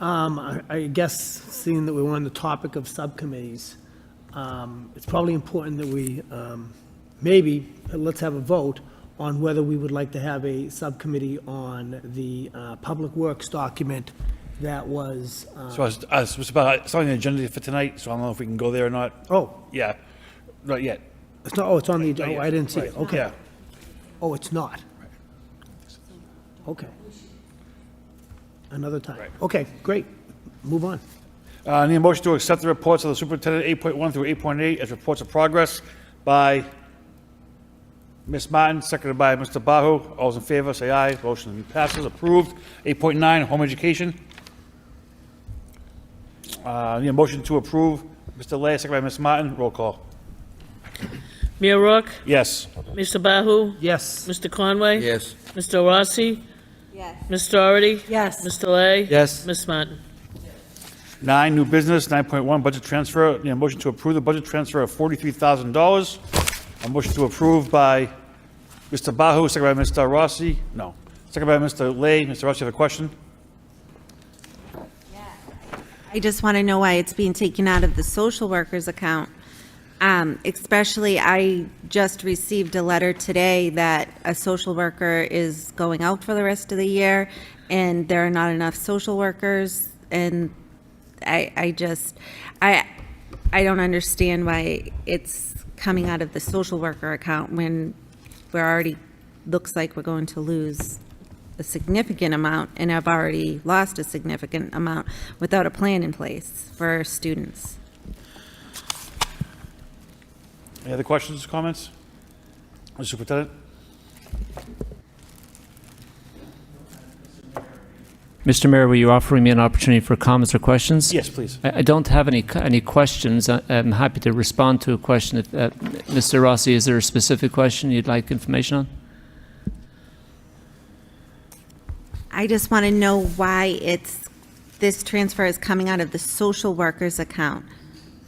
Um, I I guess, seeing that we're on the topic of subcommittees, um, it's probably important that we, um, maybe, uh, let's have a vote on whether we would like to have a subcommittee on the uh, Public Works document that was, uh, So I was, I was about, it's on the agenda for tonight, so I don't know if we can go there or not. oh, Yeah, not yet. it's not, oh, it's on the, Not oh, yet. I didn't see it, Right. okay. Yeah. Oh, it's not? Okay. Another time. Right. Okay, great. Move on. Uh, need a motion to accept the reports of the superintendent eight point one through eight point eight as reports of progress by Ms. Martin, seconded by Mr. Bahu. All's in favor, say aye. Motion passes, approved. Eight point nine, home education. Uh, need a motion to approve. Mr. Lay, seconded by Ms. Martin. Roll call. Mayor Rourke, Yes. Mr. Bahu, Yes. Mr. Conway. Yes. Mr. Rossi, Yes. Ms. Doherty. Yes. Mr. Lay. Yes. Ms. Martin. Nine, new business, 9.1, budget transfer. Need a motion to approve the budget transfer of $43,000. A motion to approve by Mr. Bahu, second by Mr. Rossi. No, second by Mr. Lay. Mr. Rossi, you have a question? I just want to know why it's being taken out of the social workers account. Um, especially, I just received a letter today that a social worker is going out for the rest of the year, and there are not enough social workers, and I, I just, I, I don't understand why it's coming out of the social worker account when we're already, looks like we're going to lose a significant amount and have already lost a significant amount without a plan in place for our students. Any other questions, comments? Mr. Superintendent? Mr. Mayor, were you offering me an opportunity for comments or questions? Yes, please. I I don't have any, cu- any questions. I- I'm happy to respond to a question. if, uh, Mr. Rossi, is there a specific question you'd like information on? I just want to know why it's, this transfer is coming out of the social workers account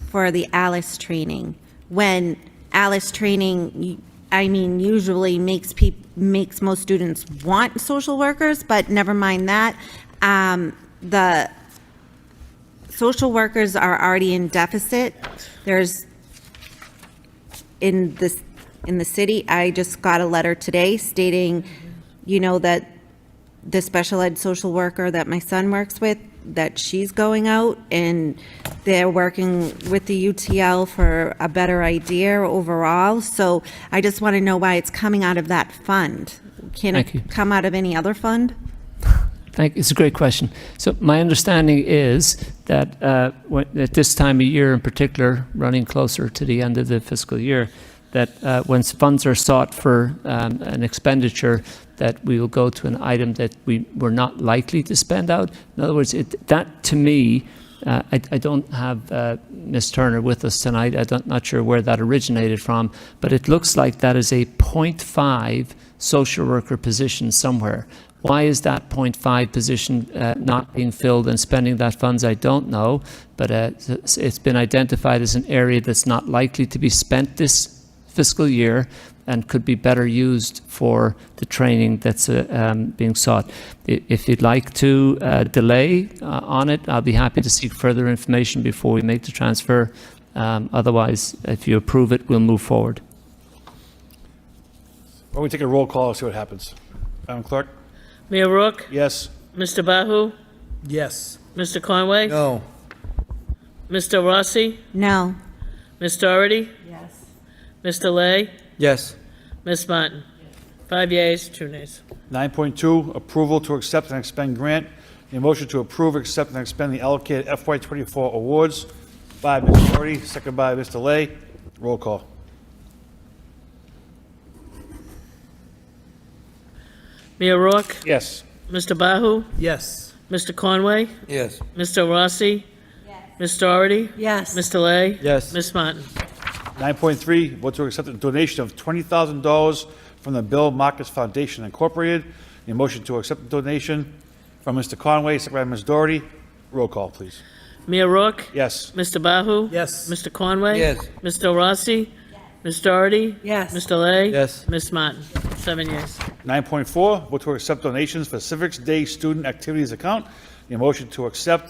for the Alice training, when Alice training, I mean, usually makes peop, makes most students want social workers, but never mind that. Um, the social workers are already in deficit. There's in this, in the city, I just got a letter today stating, you know, that the special ed social worker that my son works with, that she's going out and they're working with the UTL for a better idea overall. So I just want to know why it's coming out of that fund. Can Thank you. it come out of any other fund? Thank, it's a great question. So my understanding is that uh, when- at this time of year in particular, running closer to the end of the fiscal year, that uh, when funds are sought for um, an expenditure, that we will go to an item that we were not likely to spend out. In other words, it, that to me, uh, I, I don't have uh, Ms. Turner with us tonight. I'm not, not sure where that originated from, but it looks like that is a 0.5 social worker position somewhere. Why is that 0.5 position uh, not being filled and spending that funds? I don't know, but uh, it's it's been identified as an area that's not likely to be spent this fiscal year and could be better used for the training that's uh, um, being sought. I- If you'd like to uh, delay uh, on it, I'll be happy to seek further information before we make the transfer. Um, Otherwise, if you approve it, we'll move forward. Why don't we take a roll call and see what happens? Madam Clerk? Mayor Rourke, Yes. Mr. Bahu, Yes. Mr. Conway. No. Mr. Rossi, No. Ms. Doherty. Yes. Mr. Lay, Yes. Ms. Martin. Five yeas, two nays. 9.2, approval to accept and expend grant. Need a motion to approve, accept, and expend the allocated FY24 awards by Ms. Doherty, seconded by Mr. Lay. Roll call. Mayor Rourke, Yes. Mr. Bahu, Yes. Mr. Conway, Yes. Mr. Rossi. Ms. Doherty. Yes. Mr. Lay. Yes. Ms. Martin. 9.3, vote to accept a donation of $20,000 from the Bill Marcus Foundation Incorporated. The motion to accept the donation from Mr. Conway, second by Ms. Doherty. Roll call, please. Mayor Rourke. Yes. Mr. Bahu? Yes. Mr. Conway? Yes. Mr. Rossi? Ms. Doherty? Yes. Mr. Lay? Yes. Ms. Martin? Seven yes. 9.4, vote to accept donations for Civics Day Student Activities Account. a motion to accept